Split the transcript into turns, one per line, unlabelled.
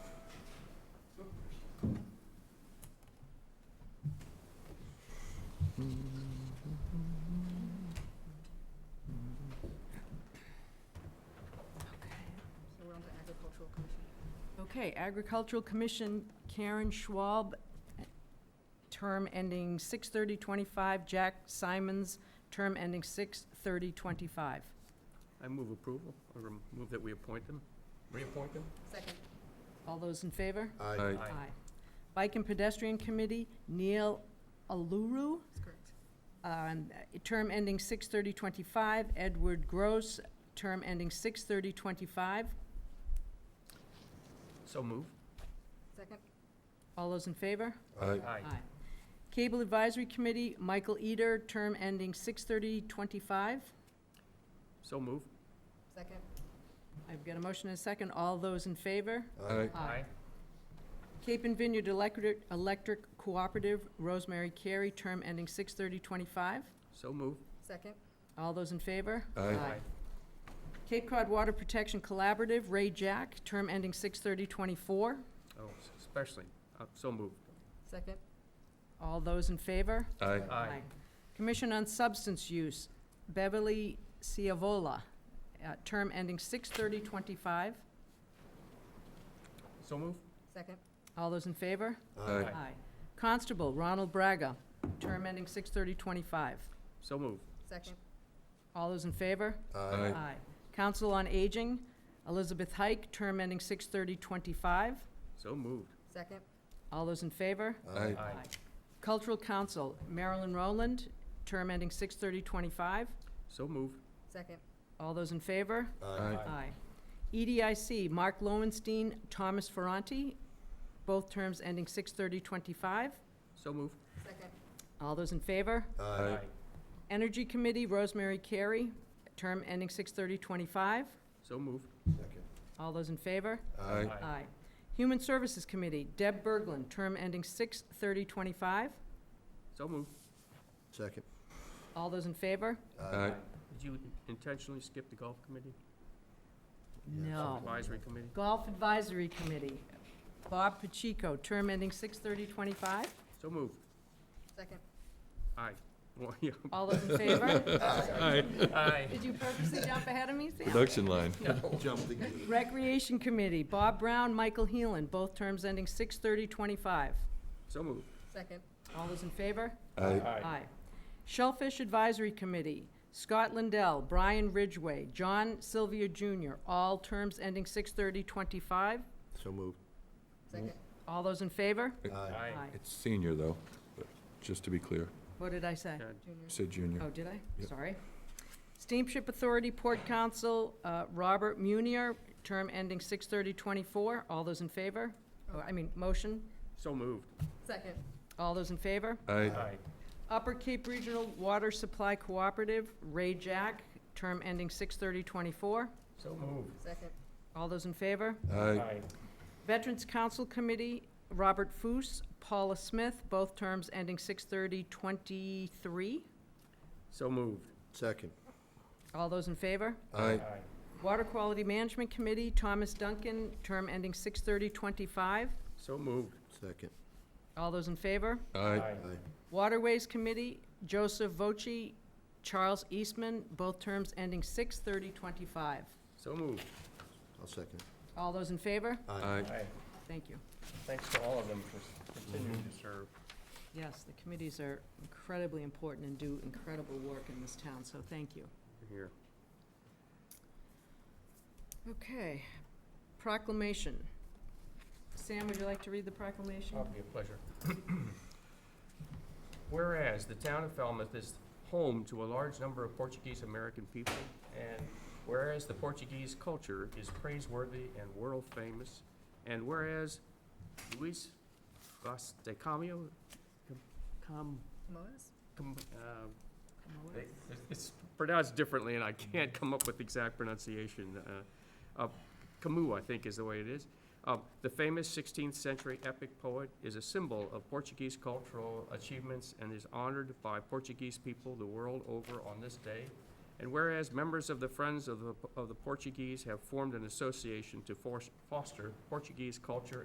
Agricultural Commission, Karen Schwab, term ending 6/30/25. Jack Simons, term ending 6/30/25.
I move approval, or rem- move that we appoint them.
Reappoint them?
Second.
All those in favor?
Aye.
Aye.
Bike and Pedestrian Committee, Neil Aluru,
That's correct.
um, term ending 6/30/25. Edward Gross, term ending 6/30/25.
So move.
Second.
All those in favor?
Aye.
Aye.
Cable Advisory Committee, Michael Eder, term ending 6/30/25.
So move.
Second.
I've got a motion and a second. All those in favor?
Aye.
Cape and Vineyard Electric Electric Cooperative, Rosemary Carey, term ending 6/30/25.
So move.
Second.
All those in favor?
Aye.
Cape Cod Water Protection Collaborative, Ray Jack, term ending 6/30/24.
Oh, s- especially, Uh, so moved.
Second.
All those in favor?
Aye.
Aye.
Commission on Substance Use, Beverly Ciavola, uh, term ending 6/30/25.
So move.
Second.
All those in favor?
Aye.
Aye.
Constable Ronald Braga, term ending 6/30/25.
So move.
Second.
All those in favor?
Aye.
Council on Aging, Elizabeth Hike, term ending 6/30/25.
So moved.
Second.
All those in favor?
Aye.
Cultural Council, Marilyn Rowland, term ending 6/30/25.
So moved.
Second.
All those in favor? E
Aye.
Aye. EDIC, Mark Lowenstein, Thomas Ferranti, both terms ending 6/30/25.
So moved.
Second.
All those in favor?
Aye.
Energy Committee, Rosemary Carey, term ending 6/30/25.
So moved.
All those in favor?
Aye.
Aye. Human Services Committee, Deb Berglund, term ending 6/30/25.
So moved.
Second.
All those in favor?
Aye.
Did you intentionally skip the golf committee?
Oh.
No.
Advisory committee?
Golf Advisory Committee, Bob Pacheco, term ending 6/30/25.
So moved.
Second.
Aye. Well, yeah.
All those in favor?
Aye.
Did you purposely jump ahead of me, Sam?
Production line.
Recreation Committee, Bob Brown, Michael Heelan, both terms ending 6/30/25.
So moved.
Second.
All those in favor?
Aye.
Aye. Shellfish Advisory Committee, Scott Lindell, Brian Ridgway, John Sylvia Jr., all terms ending 6/30/25.
So moved.
Second.
All those in favor?
Aye.
It's senior, though, but just to be clear.
What did I say?
Yeah.
Junior.
Said junior.
Oh, did I?
Yep.
Sorry. Steamship Authority Port Council, uh, Robert Munier, term ending 6/30/24. All those in favor? Oh, I mean, motion?
So moved.
Second.
All those in favor?
Aye.
Upper Cape Regional Water Supply Cooperative, Ray Jack, term ending 6/30/24.
So moved.
Second.
All those in favor?
Aye.
Veterans Council Committee, Robert Foos, Paula Smith, both terms ending 6/30/23.
So moved.
Second.
All those in favor?
Aye.
Water Quality Management Committee, Thomas Duncan, term ending 6/30/25.
So moved.
Second.
All those in favor?
Aye.
Aye.
Waterways Committee, Joseph Voce, Charles Eastman, both terms ending 6/30/25.
So moved.
I'll second.
All those in favor?
Aye.
Thank you.
Thanks to all of them for continuing to serve.
Yes, the committees are incredibly important and do incredible work in this town, so thank you.
Here.
Okay, proclamation. Sam, would you like to read the proclamation?
It'll be a pleasure. Whereas the town of Falmouth is home to a large number of Portuguese-American people, and whereas the Portuguese culture is praiseworthy and world-famous, and whereas Luis Vaz de Camio, com,
Moas?
com, uh,
Moa?
they- It's pronounced differently, and I can't come up with the exact pronunciation. uh, uh, Camus, I think, is the way it is. Uh, The famous 16th-century epic poet is a symbol of Portuguese cultural achievements and is honored by Portuguese people the world over on this day. And whereas members of the Friends of the of the Portuguese have formed an association to force- foster Portuguese culture